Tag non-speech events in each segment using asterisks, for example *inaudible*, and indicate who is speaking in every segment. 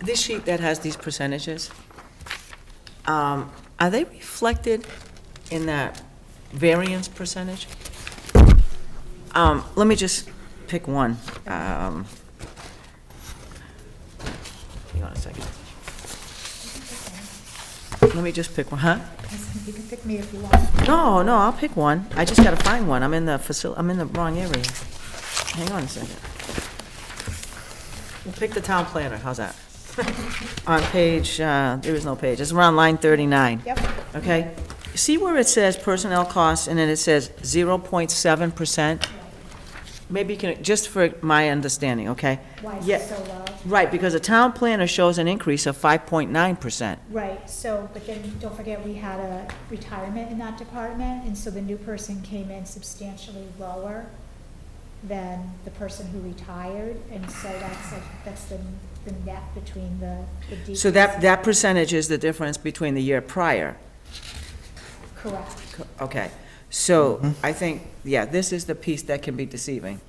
Speaker 1: this sheet that has these percentages, um, are they reflected in that variance percentage? Um, Let me just pick one. Um, Hang on a second. Let me just pick one, huh?
Speaker 2: You can pick me if you want.
Speaker 1: No, no, I'll pick one. I just gotta find one. I'm in the facil, I'm in the wrong area. Hang on a second. We'll pick the town planner, how's
Speaker 2: *laughs*
Speaker 1: that? On page, uh, there is no page, it's around line thirty-nine.
Speaker 2: Yep.
Speaker 1: Okay, see where it says personnel costs, and then it says zero point seven percent? Maybe you can, just for my understanding, okay?
Speaker 2: Why is
Speaker 1: Yeah.
Speaker 2: it so low?
Speaker 1: Right, because the town planner shows an increase of five point nine percent.
Speaker 2: Right, so, but then, don't forget, we had a retirement in that department, and so the new person came in substantially lower than the person who retired, and so that's like, that's the, the net between the, the decrease.
Speaker 1: So that, that percentage is the difference between the year prior.
Speaker 2: Correct.
Speaker 1: Okay, so
Speaker 3: Mm-hmm.
Speaker 1: I think, yeah, this is the piece that can be deceiving.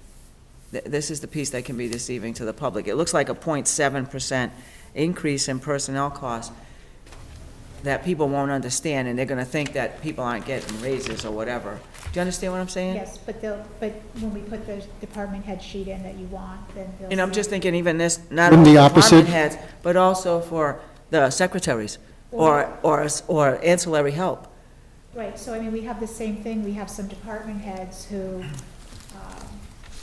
Speaker 1: Th- This is the piece that can be deceiving to the public. It looks like a 0.7 percent increase in personnel costs that people won't understand, and they're gonna think that people aren't getting raises or whatever. Do you understand what I'm saying?
Speaker 2: Yes, but they'll, but when we put the department head sheet in that you want, then they'll.
Speaker 1: And I'm
Speaker 2: see.
Speaker 1: just thinking even this, not
Speaker 3: Wouldn't
Speaker 1: only
Speaker 3: the
Speaker 1: department
Speaker 3: opposite-
Speaker 1: heads, but also for the secretaries, or, or, or ancillary help.
Speaker 2: Right, so I mean, we have the same thing, we have some department heads who, um,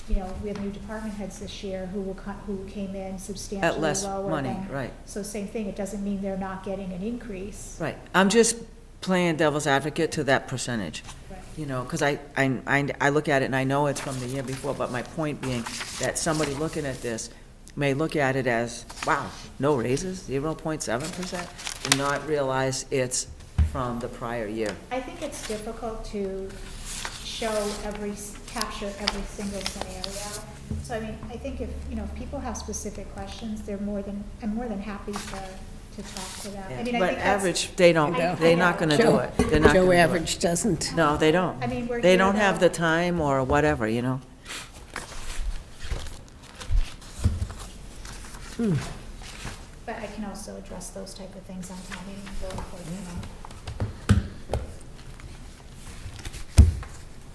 Speaker 2: you know, we have new department heads this year who will, co- who came in substantially
Speaker 1: less
Speaker 2: lower
Speaker 1: money,
Speaker 2: than.
Speaker 1: right.
Speaker 2: So same thing, it doesn't mean they're not getting an increase.
Speaker 1: Right, I'm just playing devil's advocate to that percentage,
Speaker 2: Right.
Speaker 1: you know, because I, I, I- I look at it and I know it's from the year before, but my point being that somebody looking at this may look at it as, wow, no raises, zero point seven percent, and not realize it's from the prior year.
Speaker 2: I think it's difficult to show every, s- capture every single scenario. So I mean, I think if, you know, if people have specific questions, they're more than, I'm more than happy to, to talk to them. I mean, I
Speaker 1: But
Speaker 2: think that's-
Speaker 1: average, they don't,
Speaker 2: I- I
Speaker 1: they're not
Speaker 2: know.
Speaker 1: gonna do it, they're not
Speaker 4: Joe
Speaker 1: gonna do it.
Speaker 4: Average doesn't.
Speaker 1: No, they don't.
Speaker 2: I mean, we're
Speaker 1: They
Speaker 2: here
Speaker 1: don't have
Speaker 2: though.
Speaker 1: the time or whatever, you know?
Speaker 2: But I can also address those type of things on town meeting floor, for example.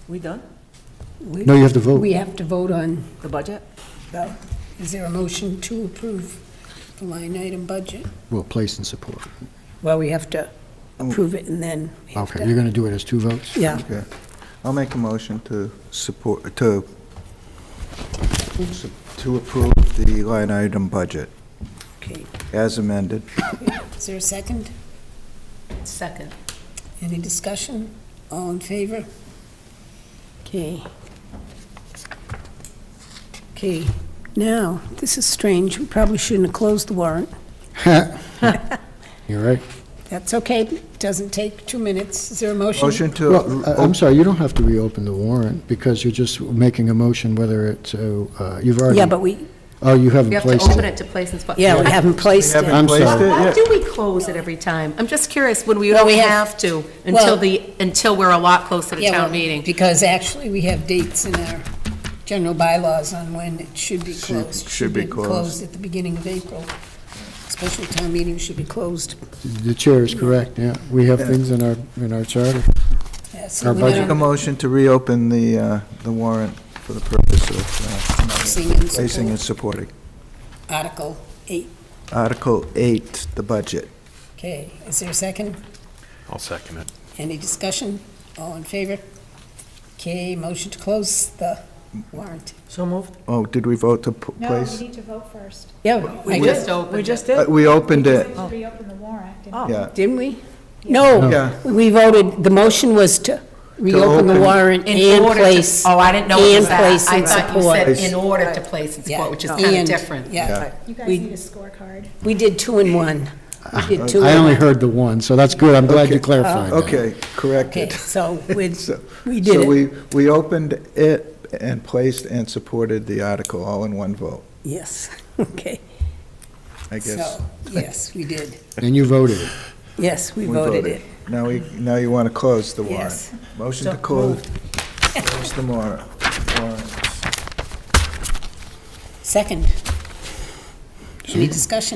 Speaker 1: We done?
Speaker 4: We-
Speaker 3: No, you have to vote.
Speaker 4: We have to vote on,
Speaker 1: The budget?
Speaker 4: well, is there a motion to approve the line item budget?
Speaker 3: Well, place and support.
Speaker 4: Well, we have to
Speaker 3: Oh.
Speaker 4: approve it and then we have
Speaker 3: Okay, you're
Speaker 4: to,
Speaker 3: going to do it as two
Speaker 4: *laughs*
Speaker 3: votes? *laughs*
Speaker 4: yeah,
Speaker 5: Okay. I'll make a motion to support, to, to approve the line item budget
Speaker 4: okay.
Speaker 5: as amended.
Speaker 4: Is there a second?
Speaker 6: Second.
Speaker 4: Any discussion? All in favor? Okay. Okay, now, this is strange. We probably shouldn't have closed the warrant.
Speaker 3: You're right.
Speaker 4: That's okay, doesn't take two minutes. Is there a motion?
Speaker 5: Motion to, oh,
Speaker 3: Well, I- I'm sorry, you don't have to reopen the warrant because you're just making a motion whether it's, uh, uh, you've already.
Speaker 4: Yeah, but we,
Speaker 3: Oh, you haven't
Speaker 6: We have to
Speaker 3: placed
Speaker 6: open
Speaker 3: it.
Speaker 6: it to place and spot.
Speaker 4: yeah, we haven't placed it.
Speaker 5: haven't
Speaker 3: I'm
Speaker 5: placed
Speaker 3: sorry.
Speaker 5: it
Speaker 6: Why
Speaker 5: yet.
Speaker 6: do we close it every time? I'm just curious, when we
Speaker 4: Well,
Speaker 6: don't
Speaker 4: we have-
Speaker 6: have to, until
Speaker 4: well-
Speaker 6: the, until we're a lot closer to
Speaker 4: Yeah, well,
Speaker 6: town meeting.
Speaker 4: Because actually, we have dates in our general bylaws on when it should be closed.
Speaker 5: should be closed.
Speaker 4: at the beginning of April. Special town meeting should be closed.
Speaker 3: The chair is correct, yeah. We have things in our, in our charter.
Speaker 4: Yeah, so
Speaker 3: Our
Speaker 4: we
Speaker 3: budget
Speaker 5: make a
Speaker 4: don't-
Speaker 5: motion to reopen the, uh, the warrant for the purpose of uh,
Speaker 4: Placing and
Speaker 5: placing and
Speaker 4: support.
Speaker 5: supporting.
Speaker 4: Article eight.
Speaker 5: Article eight, the budget.
Speaker 4: Okay, is there a second?
Speaker 7: I'll second it.
Speaker 4: Any discussion? All in favor? Okay, motion to close the warrant.
Speaker 1: So moved?
Speaker 5: Oh, did we vote to p-
Speaker 2: No, we
Speaker 5: place?
Speaker 2: need to vote first.
Speaker 4: Yeah, I
Speaker 1: We
Speaker 4: just,
Speaker 1: just We just
Speaker 5: Uh,
Speaker 1: did?
Speaker 5: We opened
Speaker 2: We
Speaker 5: it,
Speaker 2: need to reopen the warrant. and-
Speaker 1: Oh.
Speaker 5: yeah.
Speaker 4: didn't we? No,
Speaker 5: Yeah.
Speaker 4: we voted, the motion was to reopen the
Speaker 5: open-
Speaker 4: warrant
Speaker 6: In
Speaker 4: and
Speaker 6: order to-
Speaker 4: place.
Speaker 6: Oh, I didn't know it was that.
Speaker 4: And place and
Speaker 6: I thought you
Speaker 4: support.
Speaker 6: said in order to place and
Speaker 4: Yeah,
Speaker 6: support, which is kind of
Speaker 4: and,
Speaker 6: different.
Speaker 4: Yeah,
Speaker 2: You guys
Speaker 4: We-
Speaker 2: need a scorecard.
Speaker 4: we did two and one. We did two
Speaker 3: I
Speaker 4: and
Speaker 3: only
Speaker 4: one.
Speaker 3: heard the one, so that's good. I'm glad you
Speaker 5: Okay.
Speaker 3: clarified that.
Speaker 5: Okay,
Speaker 4: *laughs* Okay,
Speaker 5: corrected.
Speaker 4: so we,
Speaker 5: So-
Speaker 4: we did
Speaker 5: So
Speaker 4: it.
Speaker 5: we, we opened it and placed and supported the article all in one vote,
Speaker 4: Yes, *laughs* okay.
Speaker 5: I guess.
Speaker 4: So, yes, we did.
Speaker 3: And you voted it.
Speaker 4: Yes, we
Speaker 5: We
Speaker 4: voted it.
Speaker 5: Now we, now you want to close the warrant.
Speaker 4: Yes.
Speaker 5: Motion to close, close the warrant. warrant.
Speaker 4: Second. Any discussion?